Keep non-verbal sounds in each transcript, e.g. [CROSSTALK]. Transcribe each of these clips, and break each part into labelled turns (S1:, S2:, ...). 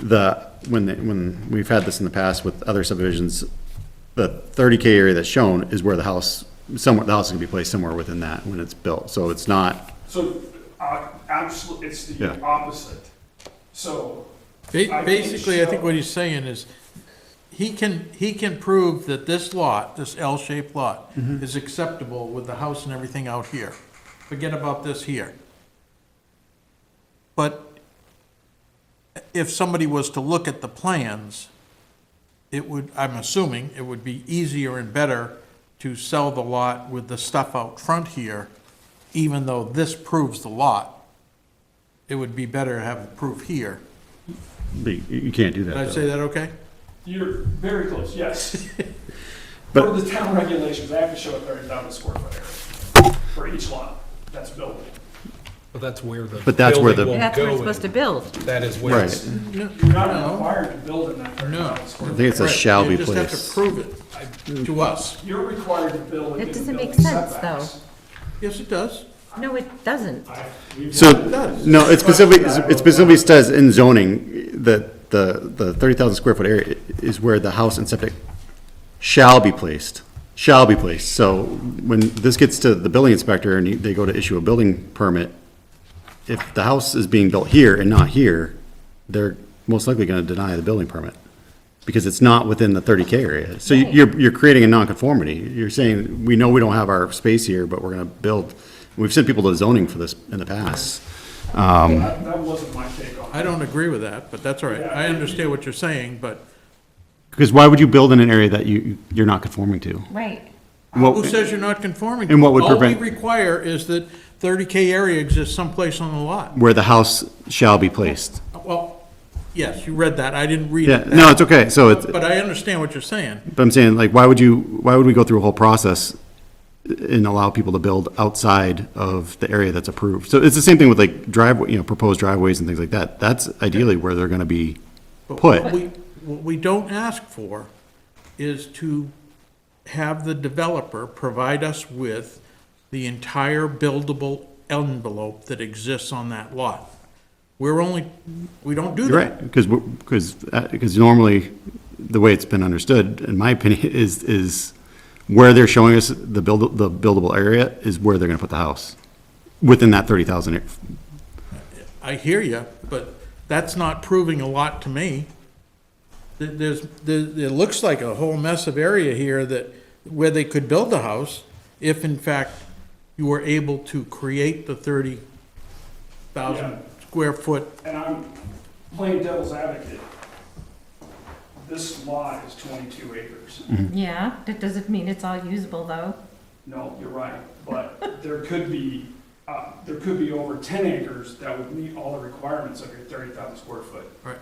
S1: the, when, the- when, we've had this in the past with other subdivisions, the thirty K area that's shown is where the house, somewhere, the house can be placed somewhere within that when it's built, so it's not,
S2: So, uh, absolutely, it's
S1: Yeah.
S2: the opposite. So,
S3: Ba-
S2: I think
S3: Basically, I think
S2: so.
S3: what he's saying is, he can, he can prove that this lot, this L-shaped lot, is acceptable with the house and everything out here. Forget about this here. But if somebody was to look at the plans, it would, I'm assuming, it would be easier and better to sell the lot with the stuff out front here, even though this proves the lot. It would be better to have the proof here.
S1: you you can't do
S3: Did I
S1: that
S3: say
S1: though.
S3: that okay?
S2: you're very
S1: [LAUGHS]
S2: close, yes.
S1: But-
S2: For the town regulations, I have to show a thirty thousand square foot area for each lot that's built.
S4: But that's where the.
S1: But that's where the-
S4: building won't
S5: That's where
S4: go
S5: it's supposed to
S4: in.
S5: build.
S4: That is where
S1: Right,
S4: it's,
S3: No.
S2: You're not
S3: No.
S2: required to build in that thirty
S3: No.
S2: thousand square
S1: I
S2: foot.
S1: think it's a
S3: Right,
S1: shall
S3: you
S1: be
S3: just have to
S1: placed.
S3: prove it to us.
S2: You're required to build
S5: That
S2: within the
S5: doesn't make
S2: building
S5: sense, though.
S2: setbacks.
S3: Yes, it does.
S5: No, it doesn't.
S2: I- we've
S1: So,
S2: got-
S1: no, it specifically, it specifically says in zoning that the, the thirty thousand square foot area is where the house and septic shall be placed, shall be placed. So when this gets to the building inspector and they go to issue a building permit, if the house is being built here and not here, they're most likely gonna deny the building permit because it's not within the thirty K area. So you- you're, you're creating a nonconformity. You're saying, we know we don't have our space here, but we're gonna build. We've sent people to zoning for this in the past. um,
S2: That that wasn't my take on it.
S3: I don't agree with that, but that's all right. I understand what you're saying, but
S1: Because why would you build in an area that you, you're not conforming to?
S5: Right.
S3: who says you're not conforming?
S1: And what would prevent-
S3: All we require is that thirty K area exists someplace on the lot.
S1: Where the house shall be placed.
S3: Well, yes, you read that. I didn't read
S1: Yeah,
S3: it.
S1: no, it's okay, so it's,
S3: But I understand what you're saying.
S1: but I'm saying, like, why would you, why would we go through a whole process and allow people to build outside of the area that's approved? So it's the same thing with like driveway, you know, proposed driveways and things like that. That's ideally where they're gonna be
S3: But What
S1: put.
S3: we, what we don't ask for is to have the developer provide us with the entire buildable envelope that exists on that lot. We're only, we don't do
S1: You're
S3: that.
S1: right, because, because, because uh, normally, the way it's been understood, in my opinion, [LAUGHS] is, is where they're showing us the build, the buildable area is where they're gonna put the house, within that thirty thousand
S3: I hear you, but that's not proving a lot to me. There- There's, there, it looks like a whole mess of area here that, where they could build a house if in fact you were able to create the thirty
S2: Yeah.
S3: thousand square foot
S2: and I'm playing devil's advocate, this lot is 22 acres.
S5: Yeah, that doesn't mean it's all usable, though.
S2: No, you're right, but [LAUGHS] there could be, uh, there could be over 10 acres that would meet all the requirements of your 30,000 square foot.
S3: Right.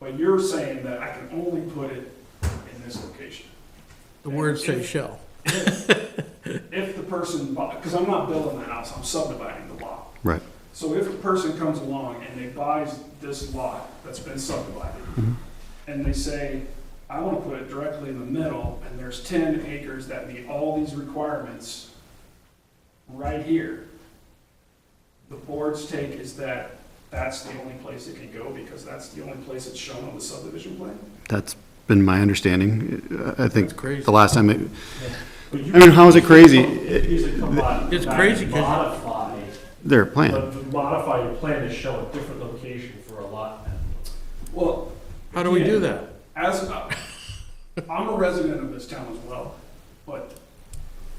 S2: But you're saying that I can only put it in this location.
S3: The words say shell.
S2: If the person, because I'm not building the house, I'm subdividing the lot.
S1: Right.
S2: So if a person comes along and they buys this lot that's been subdivided,
S1: Mm-hmm.
S2: and they say, I want to put it directly in the middle, and there's ten acres that meet all these requirements right here, the board's take is that that's the only place it can go, because that's the only place it's shown on the subdivision plan?
S1: That's been my understanding. I I
S3: That's
S1: think
S3: crazy.
S1: the last time, it-
S6: But you
S1: I mean, how is it crazy?
S6: could easily come on and
S3: It's crazy 'cause you-
S6: Modify,
S1: their plan,
S6: but to modify your plan to show a different location for a lot.
S2: Well,
S3: How do we do that?
S2: as, a- I'm a resident of this town as well, but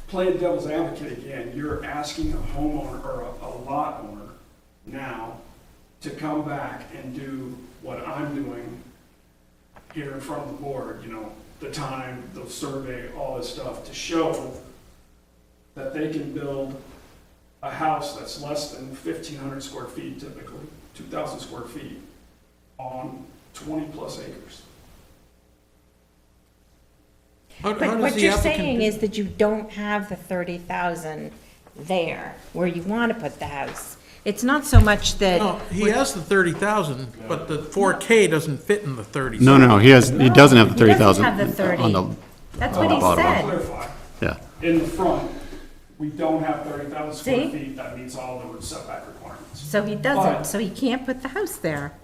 S2: playing devil's advocate again, you're asking a homeowner or a, a lot owner now to come back and do what I'm doing here in front of the board, you know, the time, the survey, all this stuff, to show that they can build a house that's less than fifteen hundred square feet typically, two thousand square feet, on twenty-plus acres.
S3: How- how
S7: But
S3: does
S7: what
S3: the
S7: you're
S3: applicant
S7: saying
S3: do-
S7: is that you don't have the thirty thousand there where you want to put the house.
S5: It's not so
S3: No,
S5: much that,
S3: he has the thirty thousand, but the four K doesn't fit in the thirty.
S1: no, no, no, he has, he doesn't have the
S5: He
S1: thirty thousand.
S5: doesn't have the 30.
S1: on the
S5: that's what he
S1: Bottom line.
S5: said.
S2: clarify,
S1: Yeah,
S2: in the front, we don't have thirty thousand square
S5: See?
S2: feet that meets all the setback requirements.
S5: So he
S2: Alright.
S5: doesn't, so he can't put the house there.